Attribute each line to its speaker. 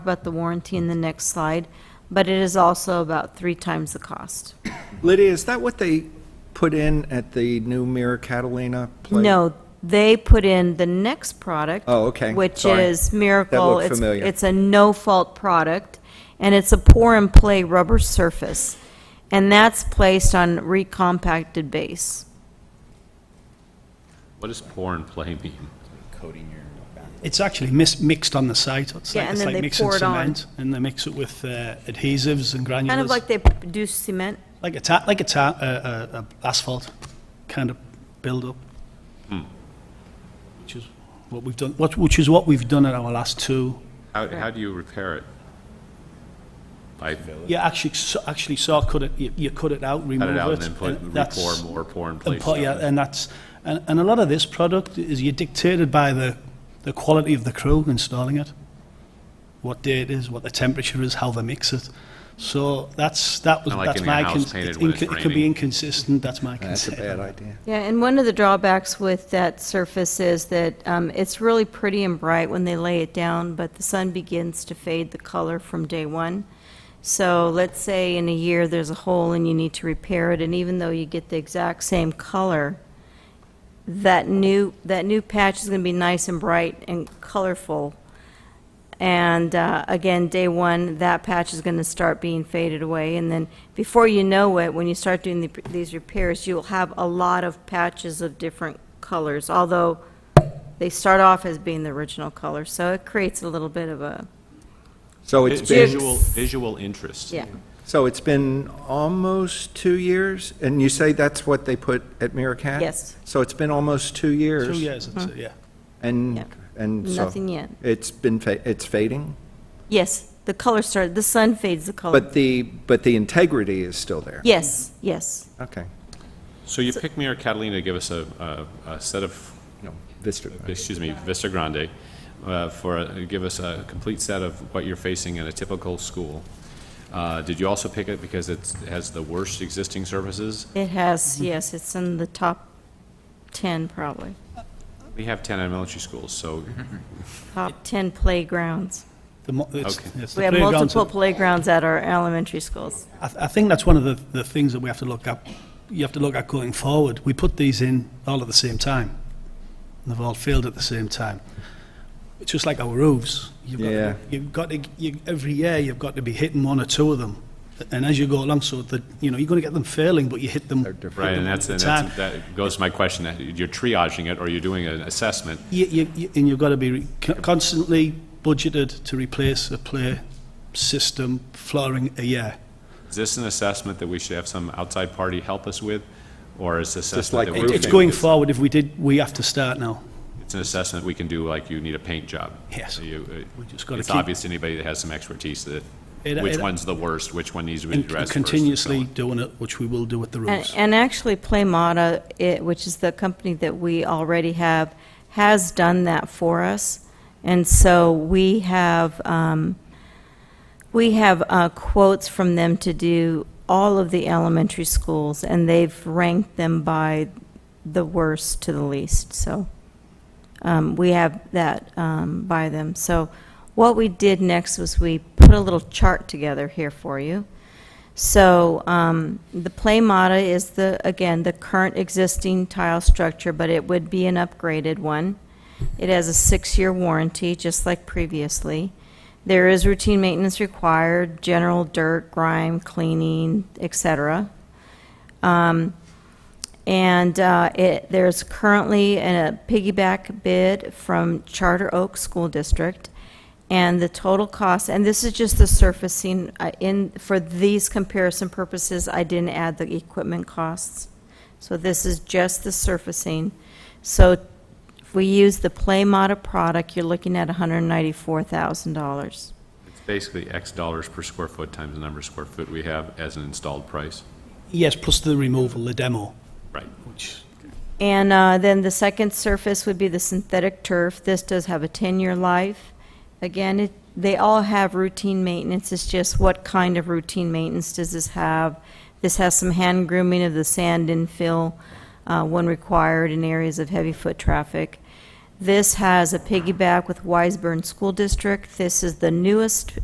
Speaker 1: about the warranty in the next slide, but it is also about three times the cost.
Speaker 2: Lydia, is that what they put in at the new Mira Catalina place?
Speaker 1: No, they put in the next product.
Speaker 2: Oh, okay.
Speaker 1: Which
Speaker 2: Sorry.
Speaker 1: is Miracle.
Speaker 2: looked
Speaker 1: It's-
Speaker 2: familiar.
Speaker 1: It's a no-fault product, and it's a pour-and-play rubber surface, and that's placed on recompacted base.
Speaker 3: What does pour and play mean?
Speaker 4: It's actually mis- mixed on the site. It's
Speaker 1: Yeah,
Speaker 4: like,
Speaker 1: and
Speaker 4: it's
Speaker 1: then
Speaker 4: like
Speaker 1: they
Speaker 4: mixing
Speaker 1: pour it on.
Speaker 4: cement, and they mix it with uh, adhesives and granulars,
Speaker 1: Kind of like they p- do cement.
Speaker 4: like a ta- like a, ta- uh, uh, uh, asphalt kind of build up,
Speaker 3: Hmm.
Speaker 4: which is what we've done. What, which is what we've done at our last two.
Speaker 3: How, how do you repair it? By
Speaker 4: You actually s- actually saw cut it. You, you cut it out, remove
Speaker 3: cut it out and then put,
Speaker 4: that's-
Speaker 3: re-pour more, pour and play
Speaker 4: And put, yeah,
Speaker 3: stuff?
Speaker 4: and that's and, and a lot of this product is you're dictated by the the quality of the crew installing it, what day it is, what the temperature is, how they mix it. So that's that was
Speaker 3: Kinda like
Speaker 4: that's
Speaker 3: in your
Speaker 4: my
Speaker 3: house
Speaker 4: cons-
Speaker 3: painted
Speaker 4: it's
Speaker 3: when it's
Speaker 4: inco- it can be
Speaker 3: raining.
Speaker 4: inconsistent. That's my
Speaker 2: That's a
Speaker 4: concern.
Speaker 2: bad idea.
Speaker 1: Yeah, and one of the drawbacks with that surface is that um, it's really pretty and bright when they lay it down, but the sun begins to fade the color from day one. So let's say in a year, there's a hole and you need to repair it, and even though you get the exact same color, that new, that new patch is going to be nice and bright and colorful. And uh, again, day one, that patch is going to start being faded away. And then before you know it, when you start doing the- these repairs, you'll have a lot of patches of different colors, although they start off as being the original color. So it creates a little bit of a,
Speaker 2: So it's been,
Speaker 3: Visual, visual interest.
Speaker 1: yeah.
Speaker 2: so it's been almost two years? And you say that's what they put at Mira Cat?
Speaker 1: Yes.
Speaker 2: So it's been almost two years?
Speaker 4: Two years, it's, uh, yeah.
Speaker 1: Yeah.
Speaker 2: And, and so.
Speaker 1: Nothing yet.
Speaker 2: It's been, fa- it's fading?
Speaker 1: Yes, the color started, the sun fades the color.
Speaker 2: But the, but the integrity is still there?
Speaker 1: Yes, yes.
Speaker 2: Okay.
Speaker 3: So you pick me or Catalina to give us a, a, a set of,
Speaker 2: No, Vista.
Speaker 3: excuse me, Vista Grande, uh, for, a- give us a complete set of what you're facing in a typical school. Uh, did you also pick it because it's, it has the worst existing services?
Speaker 1: It has, yes, it's in the top 10 probably,
Speaker 3: We have ten elementary schools, so
Speaker 1: top 10 playgrounds.
Speaker 4: The mo- it's,
Speaker 3: Okay.
Speaker 4: it's the
Speaker 1: We have
Speaker 4: playgrounds
Speaker 1: multiple
Speaker 4: that-
Speaker 1: playgrounds at our elementary schools.
Speaker 4: I, th- I think that's one of the, the things that we have to look at. You have to look at going forward. We put these in all at the same time. And they've all failed at the same time. It's just like our roofs. You've got,
Speaker 2: Yeah.
Speaker 4: to, you've got to, you, every year you've got to be hitting one or two of them. And as you go along, so that you know you're going to get them failing, but you hit them. hit them
Speaker 3: Right, and
Speaker 4: all
Speaker 3: that's,
Speaker 4: the
Speaker 3: and
Speaker 4: time.
Speaker 3: that's, that goes to my question, that you're triaging it, or you're doing an assessment.
Speaker 4: You, you, you- and you've got to be re- co- constantly budgeted to replace a play system flooring a year.
Speaker 3: Is this an assessment that we should have some outside party help us with, or is this
Speaker 2: like
Speaker 3: assessment that
Speaker 4: It,
Speaker 3: we're...
Speaker 4: it's going forward. If we did, we have to start now.
Speaker 3: It's an assessment we can do, like you need a paint job.
Speaker 4: Yes.
Speaker 3: So you- uh,
Speaker 4: We just gotta
Speaker 3: It's
Speaker 4: keep-
Speaker 3: obvious to anybody that has some expertise that,
Speaker 4: It-
Speaker 3: which
Speaker 4: it-
Speaker 3: one's the worst, which one needs to be
Speaker 4: And
Speaker 3: addressed first. and so
Speaker 4: continuously
Speaker 3: on.
Speaker 4: doing it, which we will do at the
Speaker 1: And,
Speaker 4: roofs.
Speaker 1: and actually, Playmata, it, which is the company that we already have, has done that for us. And so we have, um, we have uh, quotes from them to do all of the elementary schools, and they've ranked them by the worst to the least, so. um, we have that um, by them. So what we did next was we put a little chart together here for you. So um, the Playmata is the, again, the current existing tile structure, but it would be an upgraded one. It has a six-year warranty, just like previously. There is routine maintenance required, general dirt, grime, cleaning, et cetera. Um, And uh, it, there's currently a piggyback bid from Charter Oak School District, and the total cost, and this is just the surfacing, uh, in, for these comparison purposes, I didn't add the equipment costs. So this is just the surfacing. So if we use the Playmata product, you're looking at $194,000.
Speaker 3: It's basically X dollars per square foot times the number of square foot we have as an installed price.
Speaker 4: Yes, plus the removal, the demo,
Speaker 3: Right.
Speaker 4: which,
Speaker 1: And uh, then the second surface would be the synthetic turf. This does have a 10-year life. Again, it, they all have routine maintenance. It's just what kind of routine maintenance does this have? This has some hand grooming of the sand infill uh, when required in areas of heavy foot traffic. This has a piggyback with Wiseburn School District. This is the newest